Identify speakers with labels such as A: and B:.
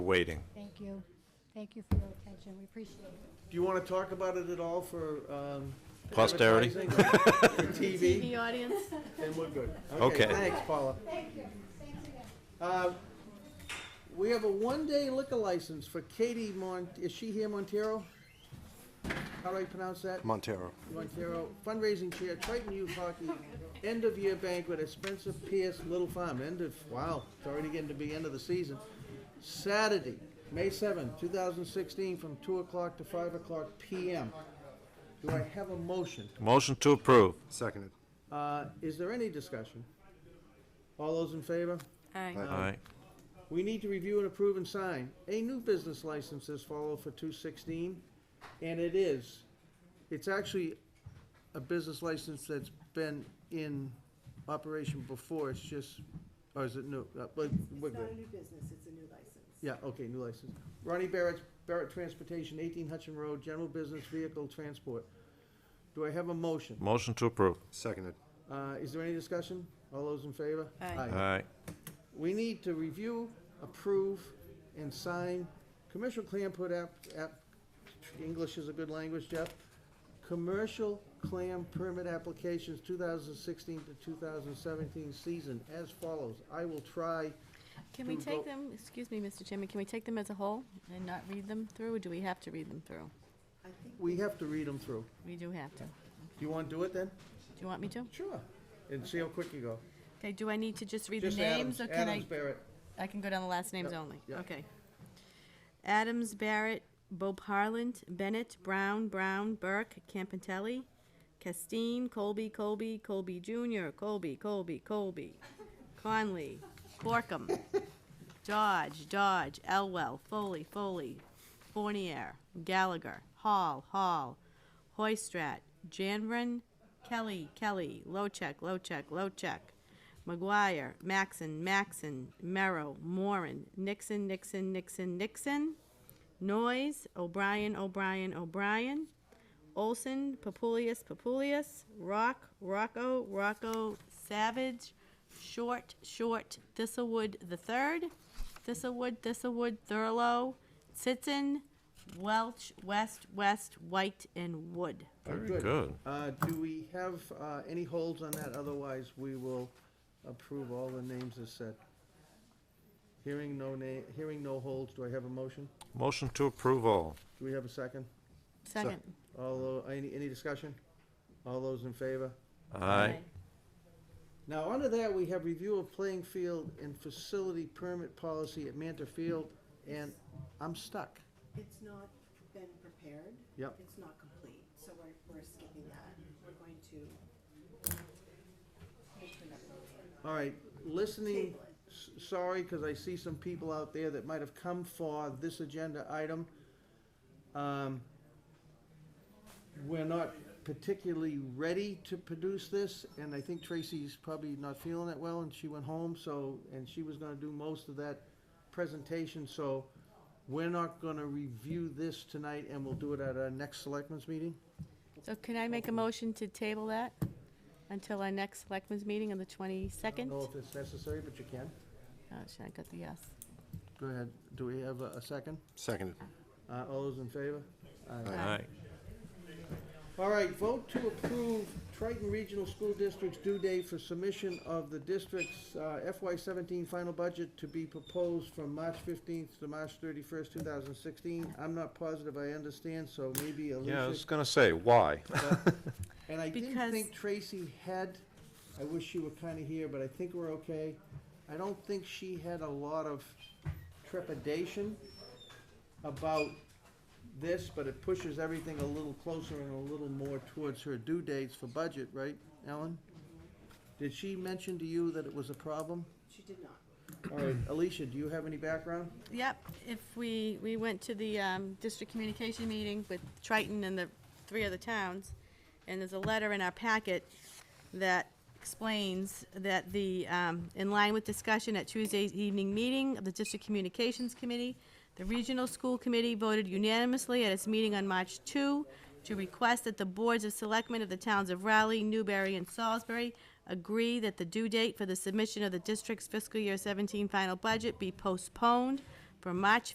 A: waiting.
B: Thank you. Thank you for your attention. We appreciate it.
C: Do you want to talk about it at all for um,
A: Posterity.
C: advertising or For TV,
D: The audience,
C: then we're good.
A: Okay.
C: Thanks, Paula.
B: Thank you. Thanks again.
C: Uh, We have a one-day liquor license for Katie Mon, is she here, Montero? How do I pronounce that?
E: Montero.
C: Montero fundraising chair, Triton Youth Hockey, end-of-year banquet at Spencer Pierce Little Farm, end of, wow, it's already getting to be end of the season. Saturday, May seventh, two thousand sixteen, from two o'clock to five o'clock PM. Do I have a motion?
A: Motion to approve.
E: Seconded.
C: Uh, is there any discussion? All those in favor?
D: aye,
A: All right.
C: We need to review and approve and sign a new business license as follow for two sixteen, and it is, it's actually a business license that's been in operation before, it's just, or is it new? Uh, but we're
F: It's not a
C: good.
F: new business, it's a new license.
C: Yeah, okay, new license. Ronnie Barrett, Barrett Transportation, eighteen Hutchin Road, general business vehicle transport. Do I have a motion?
A: Motion to approve.
E: Seconded.
C: Uh, is there any discussion? All those in favor?
D: Aye.
A: All right.
C: We need to review, approve, and sign commercial clam put app, app, English is a good language, Jeff. Commercial clam permit applications two thousand sixteen to two thousand seventeen season as follows. I will try,
D: Can we
C: To vote.
D: take them, excuse me, Mr. Chairman, can we take them as a whole and not read them through, or do we have to read them through?
F: I think
C: we have to read them through.
D: We do have to. Do
C: Do you wanna do it then?
D: you want me to?
C: Sure. And see how quick you go.
D: Okay, do I need to just read the
C: Just
D: names,
C: Adams,
D: or can
C: Adams
D: I,
C: Barrett.
D: I can go down the last names
C: Yep,
D: only?
C: yep.
D: Okay. Adams, Barrett, Bob Harland, Bennett, Brown, Brown, Burke, Campantelli, Castine, Colby, Colby, Colby Jr., Colby, Colby, Colby, Conley, Corkum, Dodge, Dodge, Elwell, Foley, Foley, Fournier, Gallagher, Hall, Hall, Hoistrat, Janvrin, Kelly, Kelly, Lochek, Lochek, Lochek, McGuire, Maxon, Maxon, Merrow, Moran, Nixon, Nixon, Nixon, Nixon, Noyes, O'Brien, O'Brien, O'Brien, Olson, Papulius, Papulius, Rock, Rocco, Rocco, Savage, Short, Short, Thistlewood the Third, Thistlewood, Thistlewood, Thurlow, Sitson, Welch, West, West, White, and Wood.
A: Very good.
C: Uh, do we have, uh, any holds on that? Otherwise, we will approve all the names as said. Hearing no na, hearing no holds, do I have a motion?
A: Motion to approve all.
C: Do we have a second?
D: Second.
C: All, tho- any, any discussion? All those in favor?
A: All right.
C: Now, under that, we have review of playing field and facility permit policy at Manta Field, and I'm stuck.
F: it's not been prepared.
C: Yep.
F: It's not complete, so we're, we're skipping that. We're going to. move to another meeting.
C: All right, listening, s- sorry, because I see some people out there that might have come for this agenda item. Um, We're not particularly ready to produce this, and I think Tracy's probably not feeling it well, and she went home, so, and she was gonna do most of that presentation, so we're not gonna review this tonight, and we'll do it at our next selectmen's meeting.
D: So can I make a motion to table that until our next selectmen's meeting on
C: I
D: the
C: don't
D: twenty-second?
C: know
D: Oh,
C: if it's necessary, but you can.
D: should I got the yes?
C: Go ahead, do we have a a second?
E: Seconded.
C: Uh, All those in favor?
A: All right.
C: All right, vote to approve Triton Regional School District's due date for submission of the district's uh, FY seventeen final budget to be proposed from March fifteenth to March thirty-first, two thousand sixteen. I'm not positive I understand, so maybe
A: Yeah, I was
C: Alicia.
A: gonna say, why?
C: And I didn't
D: Because-
C: think Tracy had, I wish she were kinda here, but I think we're okay. I don't think she had a lot of trepidation about this, but it pushes everything a little closer and a little more towards her due dates for budget, right, Ellen? Did she mention to you that it was a problem?
F: She did not.
C: All right, Alicia, do you have any background?
D: Yep, if we, we went to the um, district communication meeting with Triton and the three other towns, and there's a letter in our packet that explains that the, um, in line with discussion at Tuesday's evening meeting of the District Communications Committee, the Regional School Committee voted unanimously at its meeting on March 2 to request that the boards of selectmen of the towns of Raleigh, Newbury, and Salisbury agree that the due date for the submission of the district's fiscal year 17 final budget be postponed from March